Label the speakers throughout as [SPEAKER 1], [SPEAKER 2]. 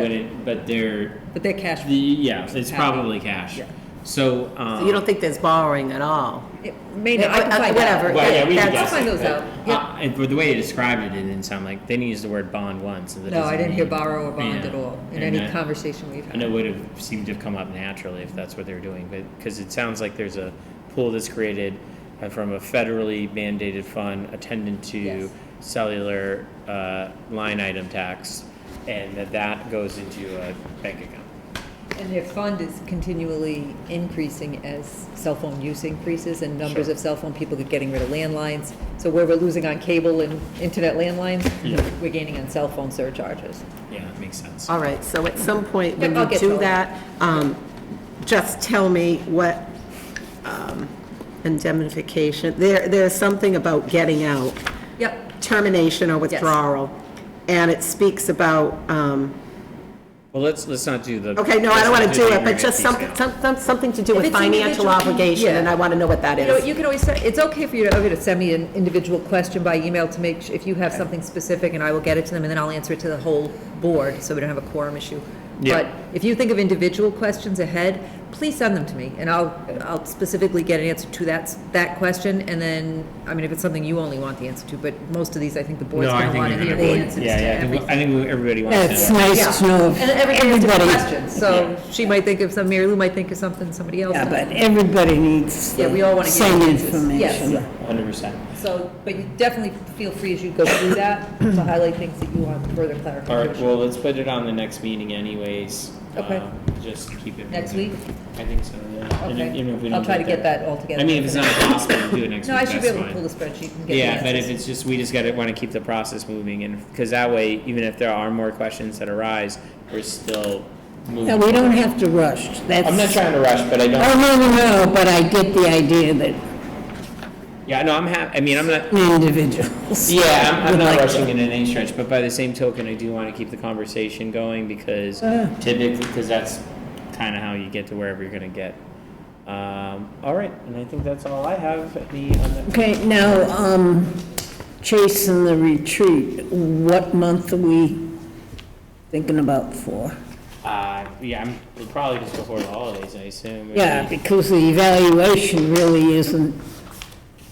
[SPEAKER 1] but it, but they're,
[SPEAKER 2] But they're cash.
[SPEAKER 1] the, yeah, it's
[SPEAKER 2] Cash.
[SPEAKER 1] probably cash.
[SPEAKER 2] Yeah.
[SPEAKER 1] So, um.
[SPEAKER 3] So you don't think there's borrowing at all?
[SPEAKER 2] It may not, I can
[SPEAKER 3] Uh,
[SPEAKER 2] find out.
[SPEAKER 3] whatever.
[SPEAKER 1] Well, yeah, we can
[SPEAKER 3] That's-
[SPEAKER 1] guess.
[SPEAKER 2] I'll find
[SPEAKER 1] it,
[SPEAKER 2] those
[SPEAKER 1] but,
[SPEAKER 2] out.
[SPEAKER 1] uh, And for the way you described it, it didn't sound like, they didn't use the word bond once, so that
[SPEAKER 2] No, I
[SPEAKER 1] doesn't
[SPEAKER 2] didn't hear
[SPEAKER 1] mean-
[SPEAKER 2] borrow or bond
[SPEAKER 1] Yeah.
[SPEAKER 2] at all in
[SPEAKER 1] And
[SPEAKER 2] any
[SPEAKER 1] that-
[SPEAKER 2] conversation we've
[SPEAKER 1] And it
[SPEAKER 2] had.
[SPEAKER 1] would have seemed to have come up naturally if that's what they're doing, but, because it sounds like there's a pool that's created uh, from a federally mandated fund attendant to
[SPEAKER 2] Yes.
[SPEAKER 1] cellular, uh, line item tax, and that that goes into a bank account.
[SPEAKER 2] And their fund is continually increasing as cell phone use increases and numbers
[SPEAKER 1] Sure.
[SPEAKER 2] of cell phone people are getting rid of landlines. So where we're losing on cable and internet landlines,
[SPEAKER 1] Yeah.
[SPEAKER 2] we're gaining on cell phone surcharges.
[SPEAKER 1] Yeah, that makes sense.
[SPEAKER 3] All right, so at some point, when
[SPEAKER 2] Yeah, I'll
[SPEAKER 3] you
[SPEAKER 2] get
[SPEAKER 3] do
[SPEAKER 2] those.
[SPEAKER 3] that, um, just tell me what um, indemnification, there, there's something about getting out,
[SPEAKER 2] Yep.
[SPEAKER 3] termination or withdrawal, and it speaks about, um,
[SPEAKER 1] Well, let's, let's not do the.
[SPEAKER 3] okay, no, I
[SPEAKER 1] let's
[SPEAKER 3] don't want
[SPEAKER 1] not
[SPEAKER 3] to
[SPEAKER 1] the
[SPEAKER 3] do it, but
[SPEAKER 1] aggregate
[SPEAKER 3] just
[SPEAKER 1] piece
[SPEAKER 3] something,
[SPEAKER 1] now.
[SPEAKER 3] some- something to do
[SPEAKER 2] If
[SPEAKER 3] with
[SPEAKER 2] it's individual,
[SPEAKER 3] financial obligation,
[SPEAKER 2] yeah.
[SPEAKER 3] and I want to know what that
[SPEAKER 2] You know,
[SPEAKER 3] is.
[SPEAKER 2] you can always, say- it's okay for you to, okay to send me an individual question by email to make, su- if you have something specific, and I will get it to them, and then I'll answer it to the whole board, so we don't have a quorum issue.
[SPEAKER 1] Yeah.
[SPEAKER 2] But if you think of individual questions ahead, please send them to me, and I'll, I'll specifically get an answer to that, s- that question, and then, I mean, if it's something you only want the answer to, but most of these, I think the board's
[SPEAKER 1] No, I
[SPEAKER 2] gonna
[SPEAKER 1] think
[SPEAKER 2] wanna
[SPEAKER 1] you're
[SPEAKER 2] hear
[SPEAKER 1] gonna
[SPEAKER 2] the
[SPEAKER 1] be-
[SPEAKER 2] answers to
[SPEAKER 1] Yeah, yeah, I think,
[SPEAKER 2] everything.
[SPEAKER 1] I think everybody wants to.
[SPEAKER 4] It's
[SPEAKER 1] know.
[SPEAKER 2] Yeah.
[SPEAKER 4] nihas no,
[SPEAKER 2] And everybody has different
[SPEAKER 4] everybody,
[SPEAKER 2] questions, so she might think of some, Mary Lou might think of something, somebody else.
[SPEAKER 4] yeah, but everybody needs
[SPEAKER 2] Yeah, we all
[SPEAKER 4] the
[SPEAKER 2] wanna get
[SPEAKER 4] same
[SPEAKER 2] answers. Yes.
[SPEAKER 4] information.
[SPEAKER 1] Hundred percent.
[SPEAKER 2] So, but you definitely feel free as you go through that to highlight things that you want further
[SPEAKER 1] All right,
[SPEAKER 2] clarification.
[SPEAKER 1] well, let's put it on the next meeting anyways.
[SPEAKER 2] Okay.
[SPEAKER 1] Um, Just keep it.
[SPEAKER 2] Next
[SPEAKER 1] moving.
[SPEAKER 2] week?
[SPEAKER 1] I think so, yeah. And if- even if we
[SPEAKER 2] Okay,
[SPEAKER 1] don't
[SPEAKER 2] I'll try to get
[SPEAKER 1] there-
[SPEAKER 2] that all together.
[SPEAKER 1] I mean, if it's not possible, we'll do it next week,
[SPEAKER 2] No, I should be
[SPEAKER 1] that's
[SPEAKER 2] able to
[SPEAKER 1] fine.
[SPEAKER 2] pull the spreadsheet and get the
[SPEAKER 1] Yeah, but if
[SPEAKER 2] answers.
[SPEAKER 1] it's just, we just gotta, wanna keep the process moving and, cause that way, even if there are more questions that arise, we're still moving.
[SPEAKER 4] No, we don't have to rush, that's.
[SPEAKER 1] I'm not trying to rush, but I don't,
[SPEAKER 4] Oh, no, no, no, but I get the idea that
[SPEAKER 1] yeah, no, I'm hap, I mean, I'm not,
[SPEAKER 4] individuals.
[SPEAKER 1] Yeah, I'm, I'm
[SPEAKER 4] would
[SPEAKER 1] not
[SPEAKER 4] like to-
[SPEAKER 1] rushing it in any stretch, but by the same token, I do want to keep the conversation going because
[SPEAKER 4] Uh.
[SPEAKER 1] typically, because that's kind of how you get to wherever you're gonna get. Um, all right, and I think that's all I have. The, on the
[SPEAKER 4] Okay, now, um, Chase and the retreat, what month are we thinking about for?
[SPEAKER 1] uh, yeah, I'm it'll probably just before the holidays, I assume.
[SPEAKER 4] Yeah, because the evaluation really isn't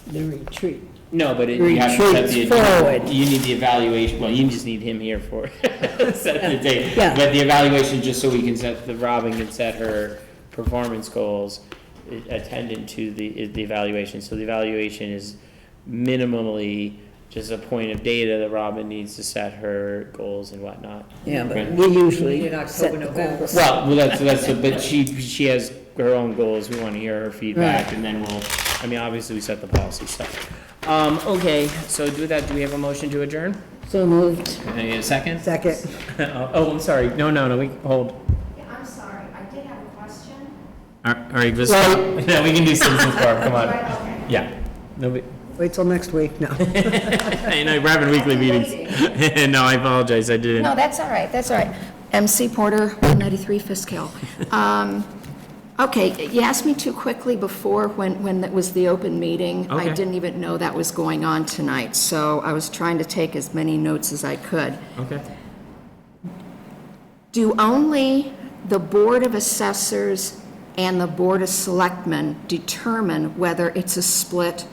[SPEAKER 4] the retreat.
[SPEAKER 1] No, but it, you have to set the
[SPEAKER 4] Retreats forward.
[SPEAKER 1] You need the evaluation. Well, you just need him here for set the date.
[SPEAKER 4] Yeah.
[SPEAKER 1] But the evaluation, just so we can set the Robin can set her performance goals i- attendant to the the evaluation. So the evaluation is minimally just a point of data that Robin needs to set her goals and whatnot.
[SPEAKER 4] Yeah, but
[SPEAKER 1] Right.
[SPEAKER 4] we
[SPEAKER 2] We
[SPEAKER 4] usually
[SPEAKER 2] need an
[SPEAKER 4] set
[SPEAKER 2] October,
[SPEAKER 4] the
[SPEAKER 2] November.
[SPEAKER 4] goals.
[SPEAKER 1] Well, well, that's, that's, but she, she has her own goals, we wanna hear her feedback, and then we'll, I mean, obviously, we set the policy stuff. Um, okay, so do that, do we have a motion to adjourn?
[SPEAKER 4] So moved.
[SPEAKER 1] Can I get a second?
[SPEAKER 3] Second.
[SPEAKER 1] Oh, oh, I'm sorry, no, no, no, we, hold.
[SPEAKER 5] Yeah, I'm sorry, I did have a question.
[SPEAKER 1] All right, just, no, we can do citizens bar, come on,
[SPEAKER 5] Right, okay.
[SPEAKER 1] yeah. Nobody,
[SPEAKER 3] Wait till next week, no.
[SPEAKER 1] and I, we're having weekly meetings. No, I apologize, I didn't.
[SPEAKER 5] No, that's all right, that's all right. MC Porter, 193 Fisk Hill. Um, Okay, you asked me too quickly before when, when that was the open meeting.
[SPEAKER 1] Okay.
[SPEAKER 5] I didn't even know that was going on tonight, so I was trying to take as many notes as I could.
[SPEAKER 1] Okay.
[SPEAKER 5] Do only the Board of Assessors and the Board of Selectmen determine whether it's a split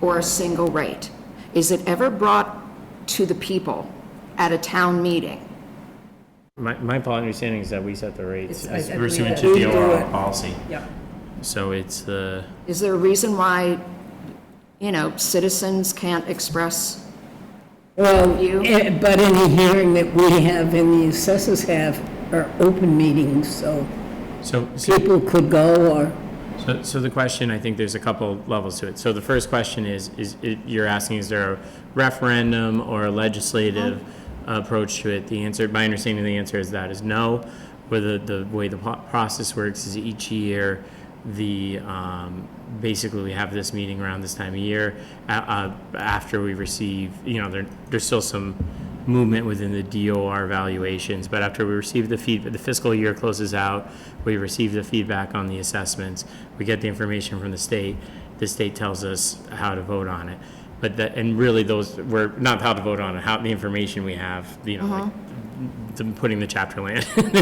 [SPEAKER 5] or a single rate? Is it ever brought to the people at a town meeting?
[SPEAKER 1] My, my pol- understanding is that we set the rates
[SPEAKER 2] It's- I-
[SPEAKER 1] as
[SPEAKER 2] I believe
[SPEAKER 1] pursuant
[SPEAKER 2] that-
[SPEAKER 1] to
[SPEAKER 4] We
[SPEAKER 1] the
[SPEAKER 4] do
[SPEAKER 1] overall
[SPEAKER 4] it.
[SPEAKER 1] policy,
[SPEAKER 2] Yeah.
[SPEAKER 1] so it's the.
[SPEAKER 5] Is there a reason why, you know, citizens can't express?
[SPEAKER 4] Well,
[SPEAKER 5] You?
[SPEAKER 4] eh, but any hearing that we have and the assessors have are open meetings, so
[SPEAKER 1] So, so,
[SPEAKER 4] people could go or,
[SPEAKER 1] so- so the question, I think there's a couple levels to it. So the first question is, is, it- you're asking, is there a referendum or a legislative approach to it? The answer, my understanding of the answer is that is no. Whether the way the po- process works is each year, the, um, basically, we have this meeting around this time of year. Uh, uh, after we receive, you know, there, there's still some movement within the DOR valuations, but after we receive the feedback, the fiscal year closes out, we receive the feedback on the assessments, we get the information from the state, the state tells us how to vote on it. But that, and really those, were not how to vote on it, how, the information we have, you know, like the- putting the chapter land